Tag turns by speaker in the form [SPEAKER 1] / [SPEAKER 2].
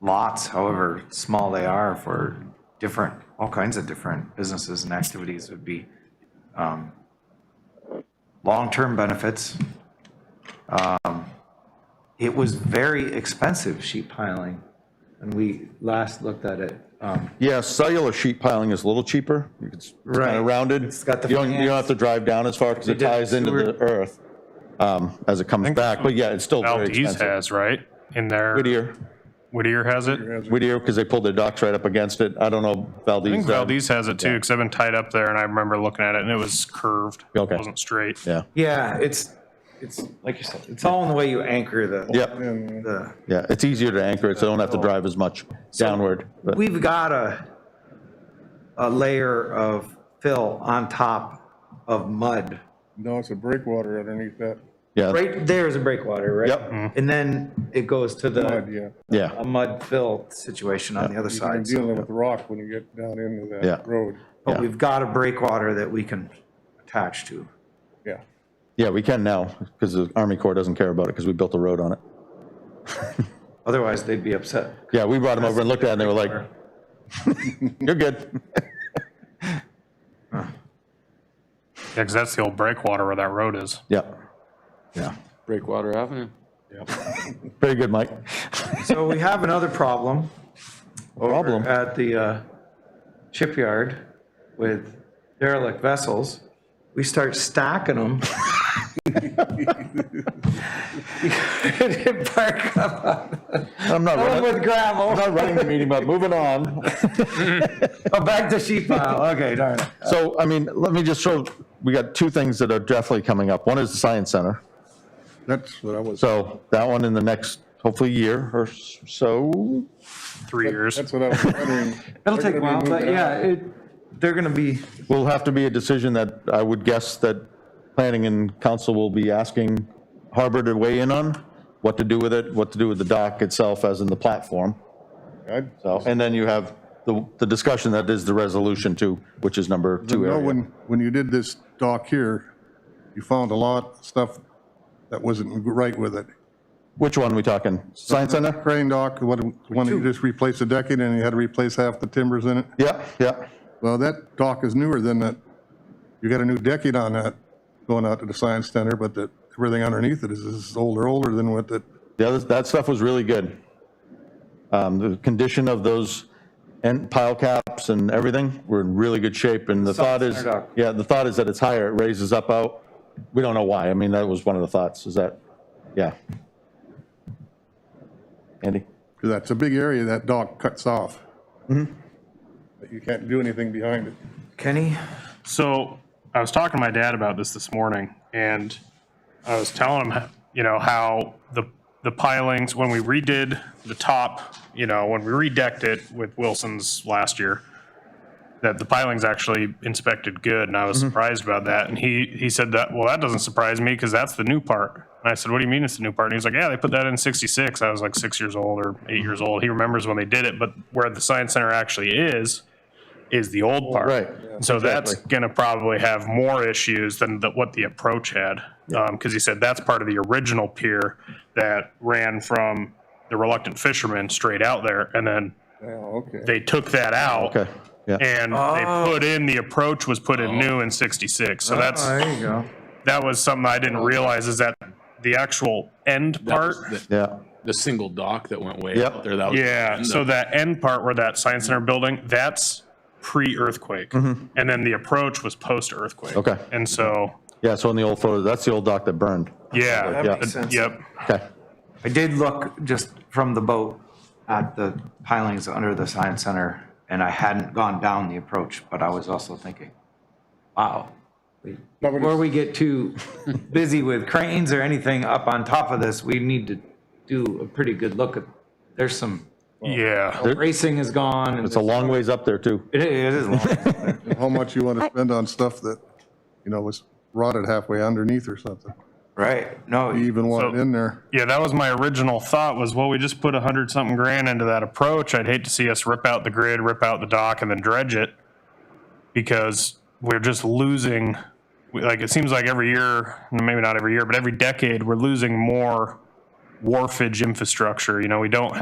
[SPEAKER 1] lots, however small they are, for different, all kinds of different businesses and activities would be um, long-term benefits. Um, It was very expensive, sheet piling, when we last looked at it. Um,
[SPEAKER 2] Yeah, cellular sheet piling is a little cheaper. It's kind
[SPEAKER 1] Right.
[SPEAKER 2] of rounded.
[SPEAKER 1] It's got the
[SPEAKER 2] You don't, you don't have
[SPEAKER 1] fans.
[SPEAKER 2] to drive down as far because it
[SPEAKER 1] They did
[SPEAKER 2] ties into
[SPEAKER 1] sewer-
[SPEAKER 2] the earth um, as it comes back. But yeah, it's still very
[SPEAKER 3] Valdez
[SPEAKER 2] expensive.
[SPEAKER 3] has, right? In there.
[SPEAKER 2] Whittier,
[SPEAKER 3] Whittier has it.
[SPEAKER 2] Whittier, because they pulled their docks right up against it. I don't know Valdez.
[SPEAKER 3] I think
[SPEAKER 2] uh,
[SPEAKER 3] Valdez has it too, because I've been tied up there and I remember looking at it and it was curved.
[SPEAKER 2] Okay.
[SPEAKER 3] It wasn't straight.
[SPEAKER 2] Yeah,
[SPEAKER 1] Yeah, it's, it's, like you said, it's all in the way you anchor the.
[SPEAKER 2] yeah,
[SPEAKER 1] the-
[SPEAKER 2] yeah. It's easier to anchor it, so they don't have to drive as much downward. but-
[SPEAKER 1] We've got a, a layer of fill on top of mud.
[SPEAKER 4] No, it's a breakwater underneath that
[SPEAKER 2] Yeah,
[SPEAKER 1] Right there is a breakwater, right?
[SPEAKER 2] Yep.
[SPEAKER 1] And then it goes to
[SPEAKER 4] mud,
[SPEAKER 1] the,
[SPEAKER 4] yeah.
[SPEAKER 1] a
[SPEAKER 2] yeah,
[SPEAKER 1] mud fill situation on the other
[SPEAKER 4] You're
[SPEAKER 1] side. so-
[SPEAKER 4] dealing with rock when you get down into
[SPEAKER 2] Yeah.
[SPEAKER 4] that road,
[SPEAKER 1] But
[SPEAKER 2] Yeah.
[SPEAKER 1] we've got a breakwater that we can attach to.
[SPEAKER 4] yeah.
[SPEAKER 2] yeah. We can now because the Army Corps doesn't care about it because we built a road on it.
[SPEAKER 1] Otherwise, they'd be upset.
[SPEAKER 2] Yeah, we brought them over and looked at it and they were like, you're good.
[SPEAKER 3] Yeah, because that's the old breakwater where that road is.
[SPEAKER 2] Yeah, yeah.
[SPEAKER 5] Breakwater Avenue.
[SPEAKER 2] Very good, Mike.
[SPEAKER 1] So we have another problem
[SPEAKER 2] Problem.
[SPEAKER 1] at the uh, shipyard with derelict vessels. We start stacking them. Park up on
[SPEAKER 2] I'm not
[SPEAKER 1] Going
[SPEAKER 2] running,
[SPEAKER 1] with gravel.
[SPEAKER 2] I'm not running the meeting, but moving on.
[SPEAKER 1] Oh, back to sheet pile, okay, darn it.
[SPEAKER 2] So, I mean, let me just show, we got two things that are definitely coming up. One is the Science Center.
[SPEAKER 4] That's what I was,
[SPEAKER 2] So that one in the next, hopefully, year or so.
[SPEAKER 3] Three years.
[SPEAKER 4] that's what I was wondering.
[SPEAKER 1] It'll take a while, but yeah, it, they're gonna be,
[SPEAKER 2] Will have to be a decision that I would guess that planning and council will be asking Harbor to weigh in on, what to do with it, what to do with the dock itself, as in the platform.
[SPEAKER 4] I'd-
[SPEAKER 2] So, and then you have the, the discussion that is the resolution to, which is number two
[SPEAKER 4] No,
[SPEAKER 2] area.
[SPEAKER 4] when, when you did this dock here, you found a lot of stuff that wasn't right with it.
[SPEAKER 2] Which one we talking? Science Center?
[SPEAKER 4] Crane dock, what, when you just replaced the decking and you had to replace half the timbers in it.
[SPEAKER 2] Yeah, yeah.
[SPEAKER 4] Well, that dock is newer than that. You got a new decking on that going out to the science center, but that, everything underneath it is, is older, older than what the
[SPEAKER 2] The other, that stuff was really good. Um, The condition of those end pile caps and everything were in really good shape, and the thought is,
[SPEAKER 1] Center dock.
[SPEAKER 2] yeah, the thought is that it's higher, it raises up out. We don't know why, I mean, that was one of the thoughts, is that, yeah. Andy?
[SPEAKER 4] That's a big area that dock cuts off.
[SPEAKER 1] Mm-hmm.
[SPEAKER 4] But you can't do anything behind it.
[SPEAKER 1] Kenny,
[SPEAKER 3] So I was talking to my dad about this this morning, and I was telling him, you know, how the the pilings when we redid the top, you know, when we redecked it with Wilson's last year, that the pilings actually inspected good, and I was surprised about that. And he he said that, well, that doesn't surprise me because that's the new part. And I said, what do you mean it's the new part? And he was like, yeah, they put that in '66. I was like six years old or eight years old. He remembers when they did it, but where the science center actually is is the old part.
[SPEAKER 2] Right.
[SPEAKER 3] So that's going to probably have more issues than the- what the approach had. Because he said that's part of the original pier that ran from the reluctant fishermen straight out there. And then
[SPEAKER 4] Oh, okay.
[SPEAKER 3] they took that out.
[SPEAKER 2] Okay, yeah.
[SPEAKER 3] And they put in, the approach was put in new in 66. So that's,
[SPEAKER 1] oh, there you go.
[SPEAKER 3] that was something I didn't realize is that the actual end part.
[SPEAKER 2] Yeah,
[SPEAKER 5] The single dock that went way
[SPEAKER 2] Yep.
[SPEAKER 5] out there. That was
[SPEAKER 3] Yeah, so that end part where that science center building, that's pre-earthquake. And then the approach was post-earthquake.
[SPEAKER 2] Okay.
[SPEAKER 3] And so,
[SPEAKER 2] yeah, so in the old photo, that's the old dock that burned.
[SPEAKER 3] yeah.
[SPEAKER 1] That makes sense.
[SPEAKER 3] Yep.
[SPEAKER 2] Okay,
[SPEAKER 1] I did look just from the boat at the pilings under the science center, and I hadn't gone down the approach, but I was also thinking, wow. we-
[SPEAKER 4] No, but
[SPEAKER 1] Before we get too busy with cranes or anything up on top of this, we need to do a pretty good look at, there's some,
[SPEAKER 3] Yeah.
[SPEAKER 1] racing is gone. and
[SPEAKER 2] it's a long ways up there, too.
[SPEAKER 1] It it is long.
[SPEAKER 4] How much you want to spend on stuff that, you know, was rotted halfway underneath or something?
[SPEAKER 1] Right, no,
[SPEAKER 4] You even want it
[SPEAKER 3] So-
[SPEAKER 4] in there?
[SPEAKER 3] Yeah, that was my original thought was, well, we just put a hundred something grand into that approach. I'd hate to see us rip out the grid, rip out the dock and then dredge it. Because we're just losing, we- like, it seems like every year, maybe not every year, but every decade, we're losing more wharfage infrastructure. You know, we don't